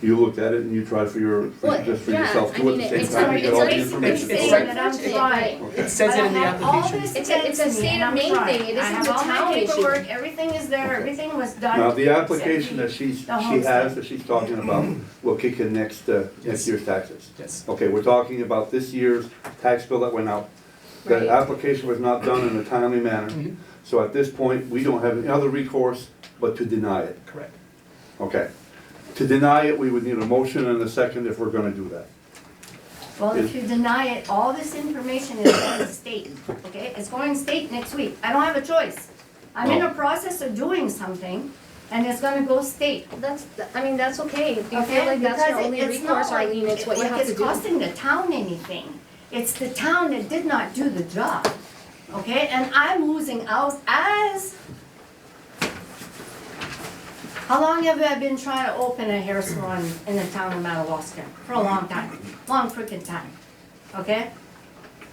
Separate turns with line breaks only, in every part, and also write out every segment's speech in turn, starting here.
You looked at it and you tried for your, for-
Well,
just for
yeah,
yourself
I
too at
mean,
the same
it's
time, you
like-
get
it's
all the
like- it's
information.
saying
Right.
that I'm
It's
trying.
Okay.
It says it in the
But I have all
application.
this
It's a- it's a
sent to me,
state
and
of
I'm
Maine
trying.
thing. It
I
isn't
have
the
all my
town issue.
paperwork, everything is there,
Okay.
everything was done.
Now, the
It's
application that
empty.
she's, she
The whole
has,
thing.
that she's talking about, will kick in next, uh, next
Yes.
year's taxes.
Yes.
Okay, we're talking about this year's tax bill that went out.
Right.
That application was not done in a timely manner.
Mhm.
So at this point, we don't have any other recourse but to deny it.
Correct.
Okay. To deny it, we would need a motion and a second if we're gonna do that.
Well, if you deny it, all this information is going to state, okay? It's going to state next week. I don't have a choice. I'm in the process of doing something, and it's gonna go state.
That's, I mean, that's okay, if you feel
Okay,
like that's your
because
only
it- it's not
recourse,
like,
Eileen, it's what you
like
have to
it's
do.
costing the town anything. It's the town that did not do the job, okay? And I'm losing out as... How long have I been trying to open a hair salon in the town of Madawaska? For a long time, long freaking time, okay?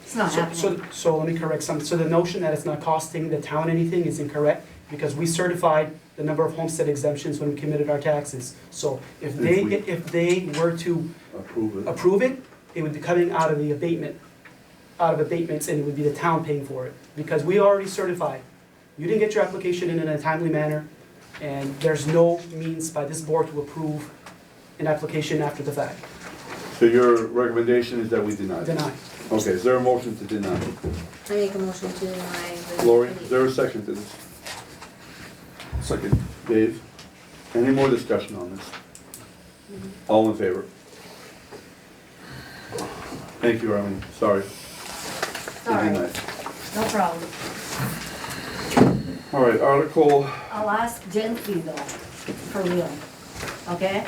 It's not
So,
happening.
so, so let me correct some, so the notion that it's not costing the town anything is incorrect, because we certified the number of homestead exemptions when we committed our taxes. So if they,
If we-
if they were to
Approve it.
approve it, it would be coming out of the abatement, out of abatements, and it would be the town paying for it, because we already certified. You didn't get your application in in a timely manner, and there's no means by this board to approve an application after the fact.
So your recommendation is that we deny it?
Deny.
Okay, is there a motion to deny?
I make a motion to deny the.
Lori, is there a second to this? Second. Dave, any more discussion on this?
Mm-hmm.
All in favor? Thank you, Arlene, sorry.
Sorry, no problem.
All right, Article,
I'll ask gently though, for real, okay?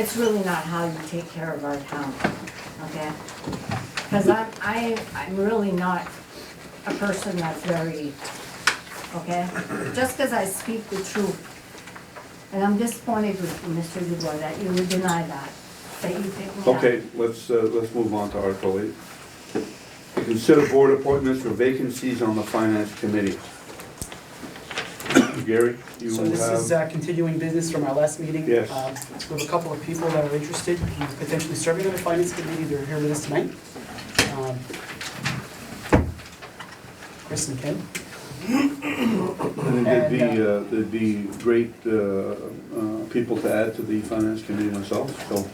It's really not how you take care of our town, okay? Cause I'm, I, I'm really not a person that's very, okay? Just cause I speak the truth. And I'm disappointed with you, Mr. Dubois that you would deny that, that you picked me up.
okay, let's, uh, let's move on to Article eight. To Consider board appointments for vacancies on the finance committee. Gary, you
So this is
have,
uh, continuing business from our last meeting.
Yes.
Um, We have a couple of people that are interested in potentially serving on the finance committee, they're here with us tonight. Um, Chris and Ken.
and it'd be, uh, it'd be great, uh, uh, people to add to the finance committee myself, so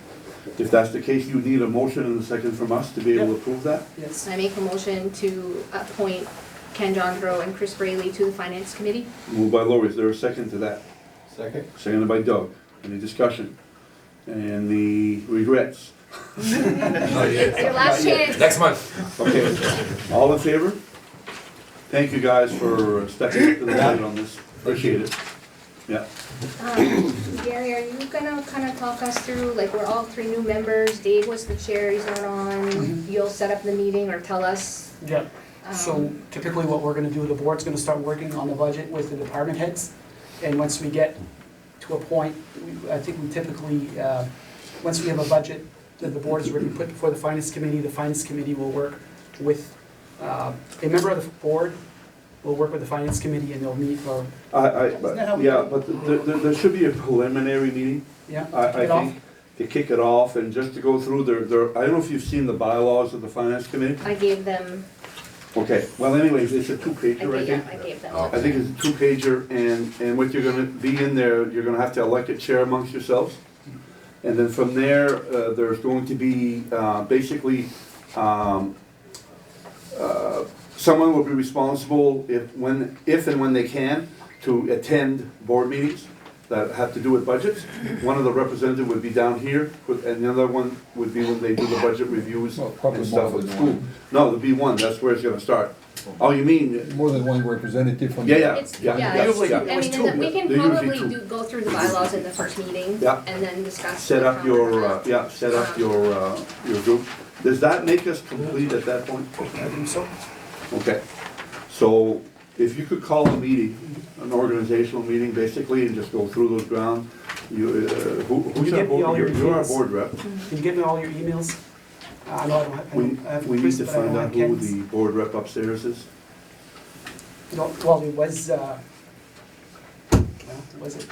if that's the case, you need a motion and a second from us to be able to approve that?
Yes.
I make a motion to appoint Ken Jondro and Chris Brayley to the finance committee.
Moved by Lori, is there a second to that?
Second.
Seconded by Doug. Any discussion? And the regrets?
It's your last chance.
Next month.
Okay, all in favor? Thank you guys for stepping up to the plate on this. Appreciate it. Yeah,
Um, Gary, are you gonna kind of talk us through, like, we're all three new members, Dave was the chair, he's not
Mm-hmm.
on, you'll set up the meeting or tell us?
Yeah.
um,
So typically what we're gonna do, the board's gonna start working on the budget with the department heads. And once we get to a point, we- I think we typically, uh, once we have a budget that the board has already put before the finance committee, the finance committee will work with, uh, a member of the board will work with the finance committee and they'll meet for,
I, I,
Isn't that how
but,
we-
yeah, but there, there- there should be a preliminary meeting,
yeah?
I, I
Get off.
think, to kick it off and just to go through their, their, I don't know if you've seen the bylaws of the finance committee?
I gave them,
Okay, well anyways, it's a
I
two-pager, I
gave,
think.
I gave them.
Oh.
I think it's a two-pager, and, and what you're gonna be in there, you're gonna have to elect a chair amongst yourselves. And then from there, uh, there's going to be, uh, basically, um, uh, someone will be responsible if, when, if and when they can, to attend board meetings that have to do with budgets. One of the representatives would be down here, with- and the other one would be when they do the budget reviews
Well, probably
and stuff
more
at
than
school.
one.
No, there'll be one, that's where it's gonna start. Oh, you mean,
More than one representative from.
yeah, yeah,
It's-
yeah,
yeah,
yeah,
it's-
yeah.
I mean,
There was
and
two.
we can
There usually
probably
two.
do, go through the bylaws in the first meeting.
Yeah.
And then discuss.
Set
the
up your, uh,
comment.
yeah, set up your, uh, your group. Does that make us complete at that point?
I think so.
Okay. So if you could call a meeting, an organizational meeting basically, and just go through those grounds. You, uh, who, who's
You
our
give me all
board, you're,
your
you're our
details.
board rep.
Can you give me all your emails? Uh, I know I don't have, I
We,
don't- I have
we need
Chris,
to
but I don't
find
have
out who
Ken's.
the board rep upstairs is.
No, Well, it was, uh, well, was it?